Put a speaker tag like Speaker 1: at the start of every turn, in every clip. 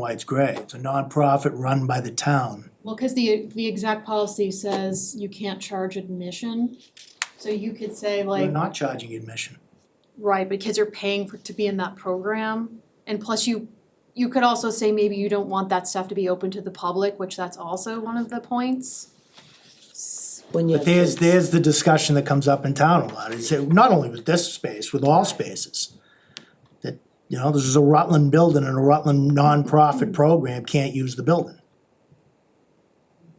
Speaker 1: why it's gray. It's a nonprofit run by the town.
Speaker 2: Well, cause the, the exact policy says you can't charge admission, so you could say
Speaker 1: We're
Speaker 2: like,
Speaker 1: not charging admission.
Speaker 2: right, but kids are paying for, to be in that program. And plus you, you could also say maybe you don't want that stuff to be open to the public, which that's also one of the points. S-
Speaker 3: When you
Speaker 1: But
Speaker 3: have
Speaker 1: there's,
Speaker 3: kids.
Speaker 1: there's the discussion that comes up in town a lot, is that not only with this space, with all spaces. That, you know, this is a Rutland building and a Rutland nonprofit program can't use the building.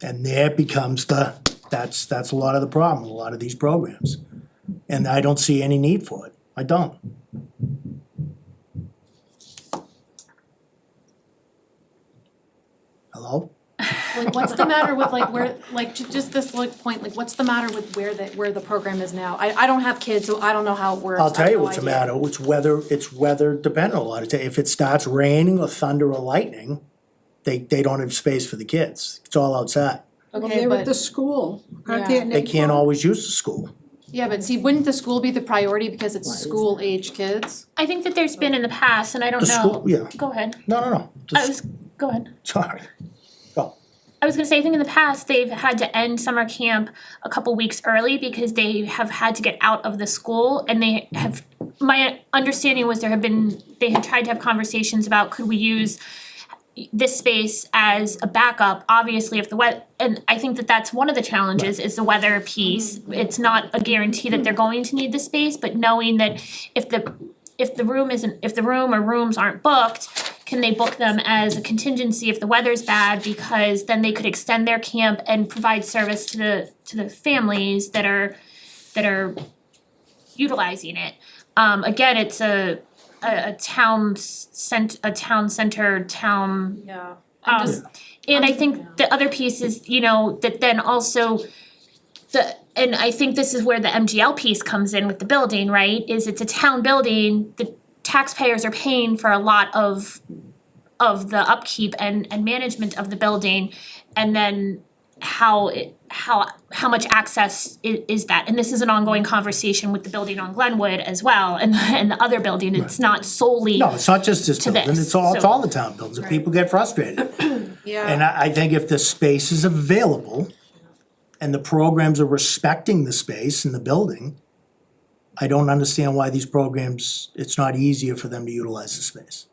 Speaker 1: And there becomes the, that's, that's a lot of the problem, with a lot of these programs. And I don't see any need for it, I don't. Hello?
Speaker 2: Like, what's the matter with like where, like, ju- just this like point, like, what's the matter with where the, where the program is now? I, I don't have kids, so I don't know how it works.
Speaker 1: I'll
Speaker 2: I
Speaker 1: tell
Speaker 2: have
Speaker 1: you
Speaker 2: no
Speaker 1: what's the
Speaker 2: idea.
Speaker 1: matter, it's weather, it's weather dependent a lot of times. If it starts raining or thunder or lightning, they, they don't have space for the kids. It's all outside.
Speaker 4: Well,
Speaker 2: Okay,
Speaker 4: they're
Speaker 2: but.
Speaker 4: at the school, aren't they?
Speaker 2: Yeah.
Speaker 4: at
Speaker 1: They can't
Speaker 4: Naples?
Speaker 1: always use the school.
Speaker 2: Yeah, but see, wouldn't the school be the priority because it's
Speaker 3: Why is
Speaker 2: school age kids?
Speaker 5: I think that there's been in the past, and I
Speaker 1: The
Speaker 5: don't
Speaker 1: school,
Speaker 5: know.
Speaker 1: yeah,
Speaker 5: Go ahead.
Speaker 1: no, no, no, The
Speaker 5: I
Speaker 1: s-
Speaker 5: was, go ahead.
Speaker 1: sorry.
Speaker 5: I was gonna say, I think in the past, they've had to end summer camp a couple weeks early because they have had to get out of the school and they have, my understanding was there have been, they had tried to have conversations about could we use this space as a backup, obviously if the weather, and I think that that's one of the challenges is the weather piece. It's not a guarantee that they're going to need the space, but knowing that if the, if the room isn't, if the room or rooms aren't booked, can they book them as a contingency if the weather's bad because then they could extend their camp and provide service to the to the families that are that are utilizing it. Um again, it's a a a town s- cent a town center town
Speaker 2: Yeah.
Speaker 5: um, and I think the other piece is, you know, that then also the, and I think this is where the MGL piece comes in with the building, right? Is it's a town building, the taxpayers are paying for a lot of of the upkeep and and management of the building and then how it how how much access i- is that? And this is an ongoing conversation with the building on Glenwood as well and and the other building, it's not solely
Speaker 1: No, it's not just this
Speaker 5: To
Speaker 1: building,
Speaker 5: this,
Speaker 1: it's all, it's
Speaker 5: so-
Speaker 1: all the town buildings, and people get frustrated.
Speaker 2: Yeah.
Speaker 1: And I, I think if the space is available and the programs are respecting the space and the building, I don't understand why these programs, it's not easier for them to utilize the space.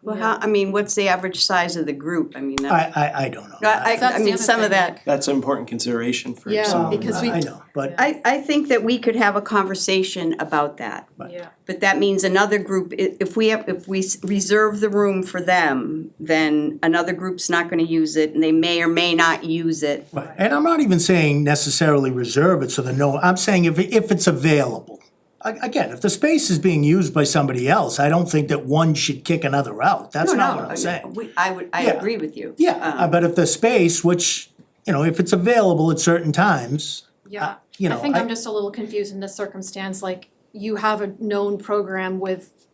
Speaker 6: Well, how, I mean, what's the average size of the group? I mean, that,
Speaker 1: I, I, I don't know.
Speaker 6: No, I, I-
Speaker 2: That's
Speaker 6: I
Speaker 2: the
Speaker 6: mean,
Speaker 2: other
Speaker 6: some of
Speaker 2: thing.
Speaker 6: that.
Speaker 7: That's an important consideration for
Speaker 2: Yeah,
Speaker 7: some.
Speaker 1: Um,
Speaker 2: because we-
Speaker 1: I know, but
Speaker 6: I, I think that we could have a conversation about that.
Speaker 2: Yeah.
Speaker 6: But that means another group, i- if we have, if we s- reserve the room for them, then another group's not gonna use it and they may or may not use it.
Speaker 1: Right, and I'm not even saying necessarily reserve it so the no, I'm saying if, if it's available. A- Again, if the space is being used by somebody else, I don't think that one should kick another out, that's
Speaker 6: No,
Speaker 1: not
Speaker 6: no,
Speaker 1: what I'm
Speaker 6: I,
Speaker 1: saying.
Speaker 6: we- I would, I
Speaker 1: Yeah.
Speaker 6: agree with you. Um,
Speaker 1: Yeah,
Speaker 2: Um.
Speaker 1: uh, but if the space, which, you know, if it's available at certain times, uh,
Speaker 2: Yeah,
Speaker 1: you
Speaker 2: I
Speaker 1: know,
Speaker 2: think I'm
Speaker 1: I,
Speaker 2: just a little confused in this circumstance, like you have a known program with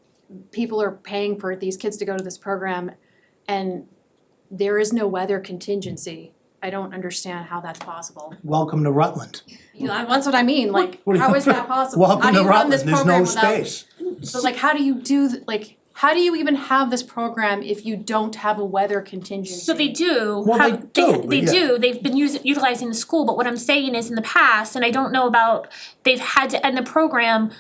Speaker 2: people are paying for these kids to go to this program and there is no weather contingency. I don't understand how that's possible.
Speaker 1: welcome to Rutland.
Speaker 2: You know, that's what I mean, like,
Speaker 1: What do you-
Speaker 2: how is that possible? How
Speaker 1: Welcome
Speaker 2: do
Speaker 1: to
Speaker 2: you run this
Speaker 1: Rutland, there's
Speaker 2: program
Speaker 1: no
Speaker 2: without
Speaker 1: space.
Speaker 2: So like, how do you do, th- like, how do you even have this program if you don't have a weather contingency?
Speaker 5: So they do
Speaker 1: Well,
Speaker 5: have,
Speaker 1: they
Speaker 5: they,
Speaker 1: do,
Speaker 5: they
Speaker 1: yeah.
Speaker 5: do, they've been using, utilizing the school, but what I'm saying is in the past, and I don't know about, they've had to end the program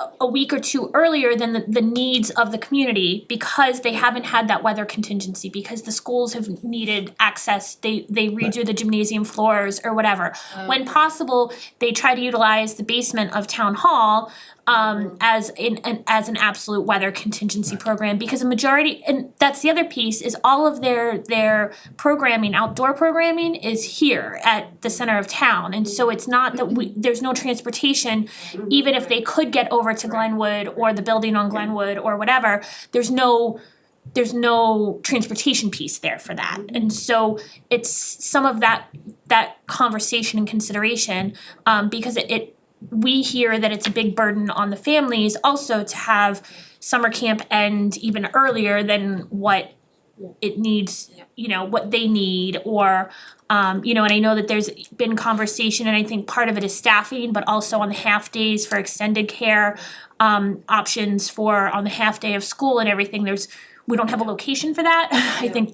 Speaker 5: a- a week or two earlier than the, the needs of the community because they haven't had that weather contingency, because the schools have needed access, they, they redo the gymnasium floors or whatever. When possible, they try to utilize the basement of town hall, um, as in, an, as an absolute weather contingency program, because a majority, and that's the other piece, is all of their, their programming, outdoor programming is here at the center of town, and so it's not that we, there's no transportation, even if they could get over to Glenwood or the building on Glenwood or whatever, there's no, there's no transportation piece there for that, and so it's some of that, that conversation and consideration, um, because it, it we hear that it's a big burden on the families also to have summer camp end even earlier than what it needs, you know, what they need or um, you know, and I know that there's been conversation and I think part of it is staffing, but also on the half days for extended care um options for on the half day of school and everything, there's We don't have a location for that. I think